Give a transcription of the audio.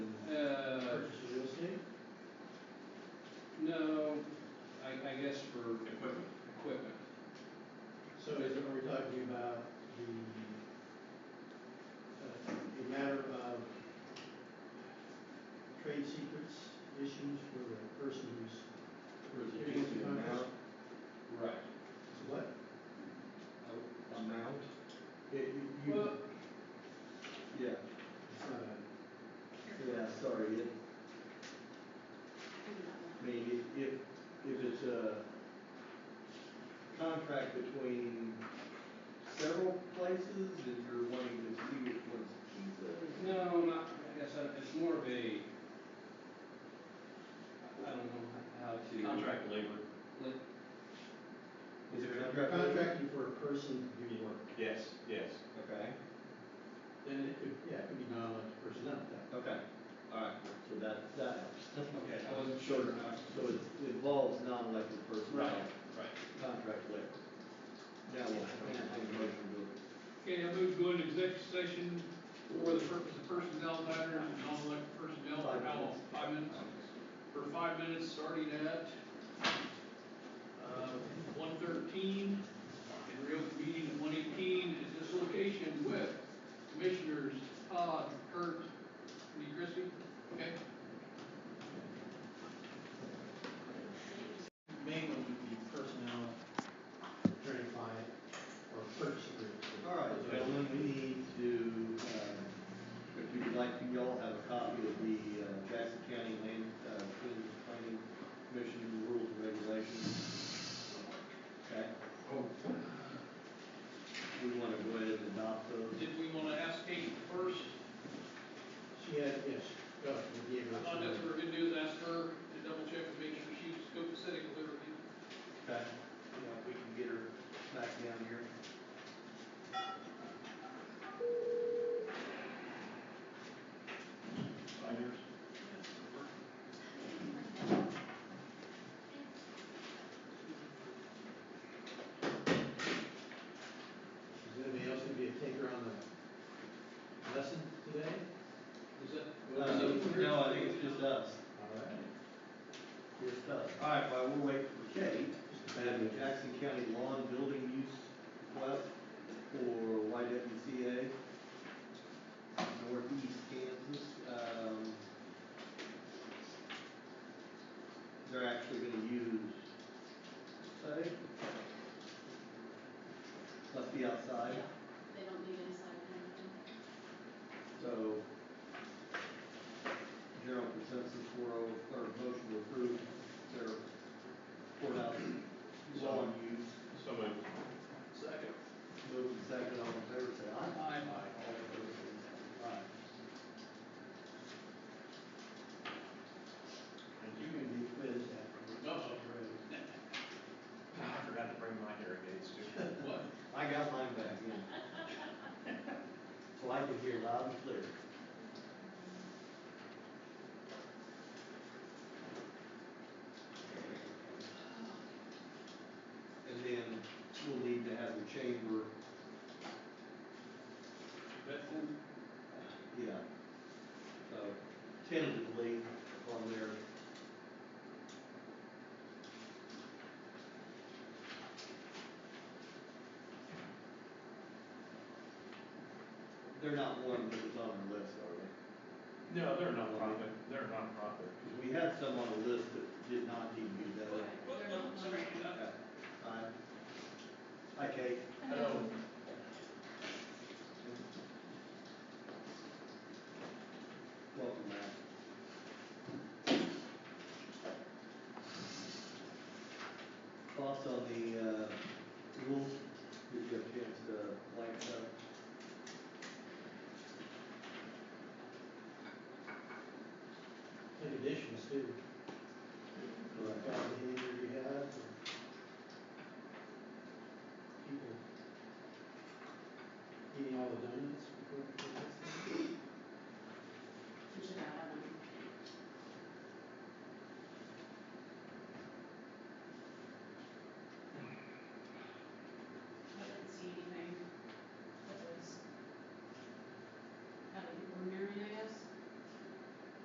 Uh, trade secrets issues for the person who's giving us the Reducing contract? amount. Right. So What? A- Amount? Yeah, you, you, Well- Yeah. it's not a- Yeah, sorry, it, I mean, if, if, if it's a contract between several places, and you're wanting to see which one's pizza. No, not, I guess, uh, it's more of a, I don't know how to. Contract labor. Like, Is it You're contract? contracting for a person to do your work. Yes, yes. Okay, Then it could, yeah, it could be non-elected personnel at that. okay, alright, so that, that helps. okay, I wasn't sure. uh, So it's- it involves non-elected personnel. right. Contract labor. Now, what? I can't make a motion Okay, I move to go into executive session for the purpose of personnel matters and non-elected personnel for how long? Five minutes? For five minutes, starting at, uh, one thirteen, and reconvening at one eighteen at this location with commissioners Todd, Kurt, Lee Christie, okay? Mainly would be personnel, attorney client, or purchase agreement. to it. Alright, gentlemen, we need to, uh, if you would like, to, y'all have a copy of the uh, Jackson County Land, uh, Community Planning Commission Rules and Regulations. Okay? We wanna go ahead and adopt those. Did we wanna ask Kate first? She had, yes, go, we gave her. I thought that's what we're gonna do, is ask her to double check and make sure she's scope setting with everything. Okay. Yeah, if we can get her back down here. Five years. Is anybody else gonna be a taker on the lesson today? Is that? Uh, No, I think it's just us, All right. just us. All right, well, we'll wait for Kate. Just a And minute. the Jackson County Lawn Building Use Request for YWCA, Northeast Kansas. Um, They're actually gonna use, I think, must be outside, They don't need inside or so anything. general consensus for, a- or motion to approve their courthouse lawn use. So moved. Second. Move and second, all in favor, say aye. Aye. All opposed, same sign. Aye. And you can be quizzed afterwards. Uh-oh. I forgot to bring my irrigates too. What? I got mine back in. So I could hear loud and clear. And then we'll need to have the chamber, Bedford? yeah, so tentatively on their They're not one that was on our list, are they? No, they're nonprofit, they're nonprofit. Because we had some on the list that did not need to be done. They're not one. Okay. Aye. Hi, Kate. Oh. Hello. Welcome back. Thoughts on the, uh, rules, did you have a chance to blank them? In addition, too. Correct. Kind of behavior you have. and People eating all the donuts.